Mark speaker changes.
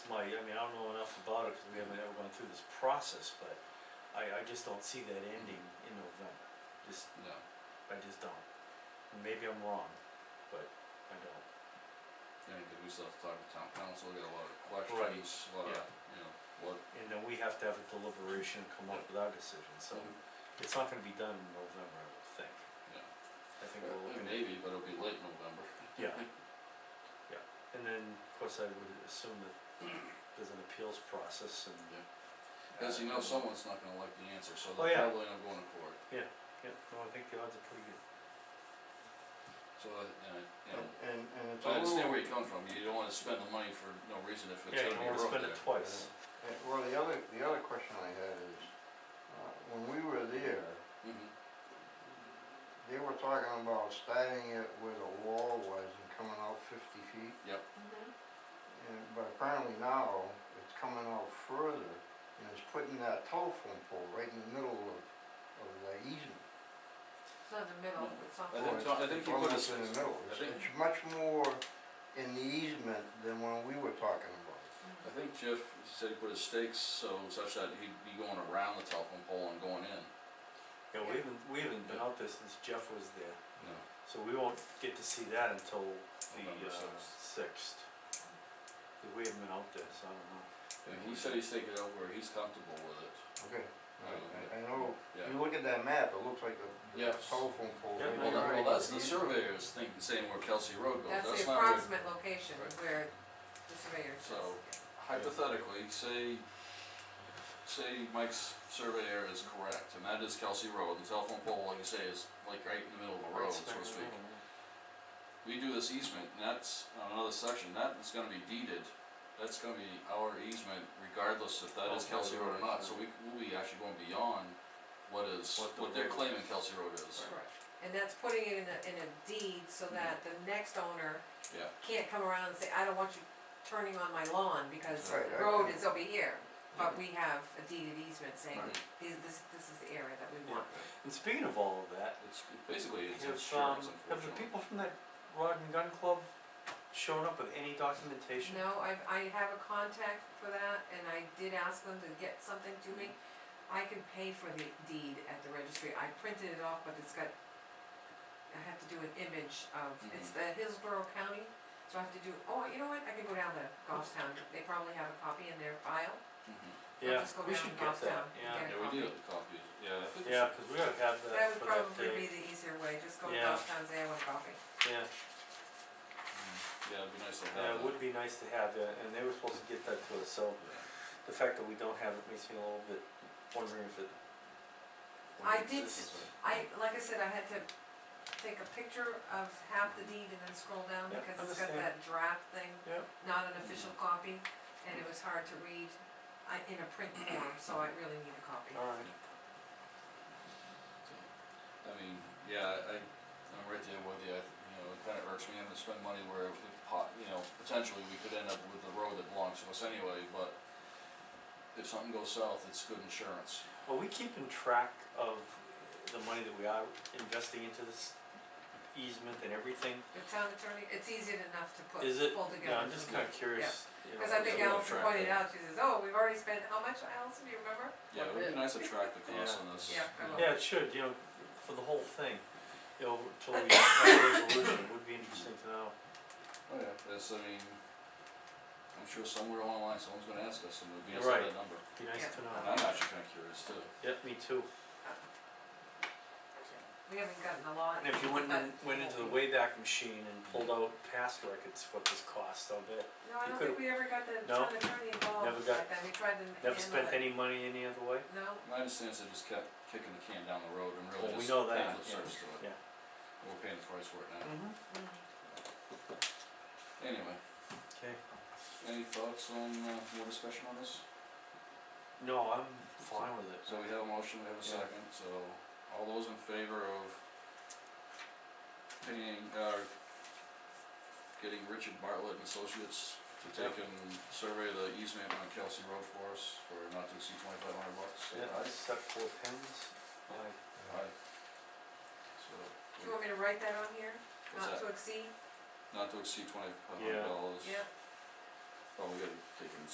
Speaker 1: I mean, I don't know enough about it, cause we haven't ever gone through this process, but I, I just don't see that ending in November, just,
Speaker 2: no,
Speaker 1: I just don't. Maybe I'm wrong, but I don't.
Speaker 2: yeah, because we still have to talk to town council, we got a lot of questions, a lot of,
Speaker 1: yeah.
Speaker 2: you know, what.
Speaker 1: And then we have to have a deliberation and come up with our decision, so
Speaker 2: Mm-hmm.
Speaker 1: it's not gonna be done in November, I don't think.
Speaker 2: Yeah.
Speaker 1: I think we're looking at,
Speaker 2: Maybe, but it'll be late November.
Speaker 1: yeah. Yeah, and then, of course, I would assume that there's an appeals process and.
Speaker 2: Yeah. Cause you know someone's not gonna like the answer, so
Speaker 1: Oh,
Speaker 2: they're
Speaker 1: yeah.
Speaker 2: probably not going to court,
Speaker 1: Yeah, no, I think the odds are pretty good.
Speaker 2: so, uh, uh, you know.
Speaker 3: And, and it's
Speaker 2: So
Speaker 3: a
Speaker 2: I
Speaker 3: little,
Speaker 2: understand where you're coming from, you don't wanna spend the money for no reason if it's
Speaker 1: Yeah, you don't
Speaker 2: gonna be
Speaker 1: wanna
Speaker 2: broke
Speaker 1: spend
Speaker 2: there.
Speaker 1: it twice.
Speaker 3: eh, well, the other, the other question I had is, uh, when we were there,
Speaker 2: Mhm.
Speaker 3: they were talking about starting it where the wall was and coming out fifty feet. And, but apparently now, it's coming out further, and it's putting that telephone pole right in the middle of, of the easement.
Speaker 4: It's not in the middle, it's on.
Speaker 2: I
Speaker 3: Or
Speaker 2: think
Speaker 3: it's-
Speaker 2: Tom- I think
Speaker 3: it's
Speaker 2: you put
Speaker 3: almost
Speaker 2: us-
Speaker 3: in the middle,
Speaker 2: I
Speaker 3: it's,
Speaker 2: think-
Speaker 3: it's much more in the easement than when we were talking about it.
Speaker 2: I think Jeff said he put his stakes so such that he'd be going around the telephone pole and going in,
Speaker 1: Yeah, we haven't, we haven't been out there since Jeff was there,
Speaker 2: you know.
Speaker 1: so we won't get to see that until the,
Speaker 2: November
Speaker 1: uh,
Speaker 2: sixth.
Speaker 1: sixth. 'Cause we haven't been out there, so I don't know.
Speaker 2: And he said he's taking it out where he's comfortable with it, Um,
Speaker 3: Okay, I, I- I know,
Speaker 2: yeah.
Speaker 3: you look at that map, it looks like a the
Speaker 2: Yes.
Speaker 3: telephone pole.
Speaker 1: Yeah,
Speaker 3: right
Speaker 2: Well, that,
Speaker 3: there.
Speaker 2: well, that's the surveyor's thing, saying where Kelsey Road goes,
Speaker 4: That's the
Speaker 2: that's not where,
Speaker 4: approximate location
Speaker 2: Right.
Speaker 4: where the surveyor is.
Speaker 2: So- hypothetically, say, say Mike's surveyor is correct, and that is Kelsey Road, the telephone pole, like you say, is like right in the middle of the road,
Speaker 1: Right
Speaker 2: so
Speaker 1: smack
Speaker 2: to
Speaker 1: in the
Speaker 2: speak.
Speaker 1: middle, yeah.
Speaker 2: We do this easement, and that's on another section, that is gonna be deeded, that's gonna be our easement regardless if that is
Speaker 1: Oh,
Speaker 2: Kelsey Road or not,
Speaker 1: right.
Speaker 2: so we, we'll be actually going beyond what is,
Speaker 1: What the
Speaker 2: what they're
Speaker 1: road is.
Speaker 2: claiming Kelsey Road is,
Speaker 4: Correct. And that's putting it in a, in a deed so that the next owner
Speaker 2: Mm-hmm. yeah.
Speaker 4: can't come around and say, I don't want you turning on my lawn because
Speaker 3: Right,
Speaker 4: the
Speaker 3: I-
Speaker 4: road is over here. But we have a deed of easement saying,
Speaker 2: Right.
Speaker 4: this, this, this is the area that we
Speaker 1: Yeah.
Speaker 4: want.
Speaker 1: And speaking of all of that,
Speaker 2: It's, basically, it's
Speaker 1: have,
Speaker 2: insurance
Speaker 1: um, have the
Speaker 2: unfortunately.
Speaker 1: people from that Rod and Gun Club shown up with any documentation?
Speaker 4: No, I, I have a contact for that and I did ask them to get something to me. I can pay for the deed at the registry. I printed it off, but it's got, I have to do an image of,
Speaker 1: Mm-hmm.
Speaker 4: it's the Hillsborough County. So I have to do, oh, you know what, I can go down to Goffstown. They probably have a copy in their file.
Speaker 2: Mhm.
Speaker 4: I'll
Speaker 1: Yeah,
Speaker 4: just go
Speaker 1: we
Speaker 4: down
Speaker 1: should
Speaker 4: and
Speaker 1: get
Speaker 4: drop
Speaker 1: that,
Speaker 4: down and
Speaker 1: yeah.
Speaker 4: get
Speaker 2: Yeah, we do have the copies, yeah, I think
Speaker 1: Yeah, cause we gotta have
Speaker 4: That
Speaker 1: that Uh, for
Speaker 4: would
Speaker 1: that
Speaker 4: probably be
Speaker 1: day,
Speaker 4: the easier way, just go to
Speaker 1: Yeah.
Speaker 4: Goffstown and say I want a copy.
Speaker 1: yeah,
Speaker 2: Mm. Yeah, it'd be nice to
Speaker 1: yeah, it
Speaker 2: have that.
Speaker 1: would be nice to have that, and they were supposed to get that to us, so the fact that we don't have it makes me a little bit wondering if it.
Speaker 4: I did s- I, like I said, I had to take a picture of half the deed and then scroll down
Speaker 1: Yeah,
Speaker 4: because it's got
Speaker 1: understand.
Speaker 4: that draft thing,
Speaker 1: Yeah.
Speaker 4: not an official copy, and it was hard to read I, in a print form, so I really need a copy.
Speaker 1: Alright,
Speaker 2: I mean, yeah, I, I'm right there with you, I, th- you know, it kinda irks me having to spend money where it pot, you know, potentially we could end up with the road that belongs to us anyway, but if something goes south, it's good insurance.
Speaker 1: are we keeping track of the money that we are investing into this easement and everything?
Speaker 4: The town attorney, it's easy enough to put,
Speaker 1: Is it,
Speaker 4: pull
Speaker 1: yeah,
Speaker 4: together.
Speaker 1: I'm just kinda curious, you know,
Speaker 4: Cause I think
Speaker 1: if we have
Speaker 4: Allison
Speaker 1: track
Speaker 4: pointed
Speaker 1: of-
Speaker 4: out, she says, oh, we've already spent, how much, Allison, do you remember?
Speaker 2: Yeah, it would be nice to track the
Speaker 1: Yeah.
Speaker 2: cost on this.
Speaker 4: Yeah, I
Speaker 2: you
Speaker 4: will.
Speaker 2: know.
Speaker 1: Yeah, it should, you know, for the whole thing, you know, till we have a resolution, it would be interesting to know.
Speaker 2: Oh, yeah, that's, I mean, I'm sure somewhere along the line, someone's gonna ask us, and we'll be asked
Speaker 1: Right.
Speaker 2: that number,
Speaker 1: Be nice to
Speaker 2: and
Speaker 1: know.
Speaker 2: I'm actually kinda curious too.
Speaker 1: Yep, me too.
Speaker 4: We haven't gotten a lot.
Speaker 1: And if you went
Speaker 4: but-
Speaker 1: in, went into the Wayback Machine and pulled out past records, what this cost, I'll bet.
Speaker 4: No,
Speaker 1: you
Speaker 4: I don't
Speaker 1: could've-
Speaker 4: think we ever got the
Speaker 1: No.
Speaker 4: town
Speaker 1: Never
Speaker 4: attorney involved
Speaker 1: got-
Speaker 4: like that, we tried to handle it.
Speaker 1: Never spent any money any other way?
Speaker 4: No,
Speaker 2: My understanding is they just kept kicking the can down the road and
Speaker 1: Well, we
Speaker 2: really just
Speaker 1: know
Speaker 2: paying
Speaker 1: that,
Speaker 2: lip
Speaker 1: yeah,
Speaker 2: service to it,
Speaker 1: yeah.
Speaker 2: we're paying the price for it now,
Speaker 1: Mm-hmm.
Speaker 4: mm.
Speaker 2: anyway.
Speaker 1: Okay.
Speaker 2: Any thoughts on, uh, more discussion on this?
Speaker 1: No, I'm fine with it.
Speaker 2: So we have a motion, we have a
Speaker 1: Yeah.
Speaker 2: second, so all those in favor of paying, uh, getting Richard Bartlett and Associates to take and survey the easement on Kelsey Road for us for not to exceed twenty-five hundred bucks, say
Speaker 1: Yeah, I
Speaker 2: aye?
Speaker 1: just stuck four pins. Aye.
Speaker 2: Aye. So,
Speaker 4: Do you want me to write that on here,
Speaker 2: what's
Speaker 4: not
Speaker 2: that,
Speaker 4: to exceed,
Speaker 2: not to exceed twenty-five
Speaker 1: Yeah.
Speaker 2: hundred dollars?
Speaker 4: yeah?
Speaker 2: Oh, we gotta take and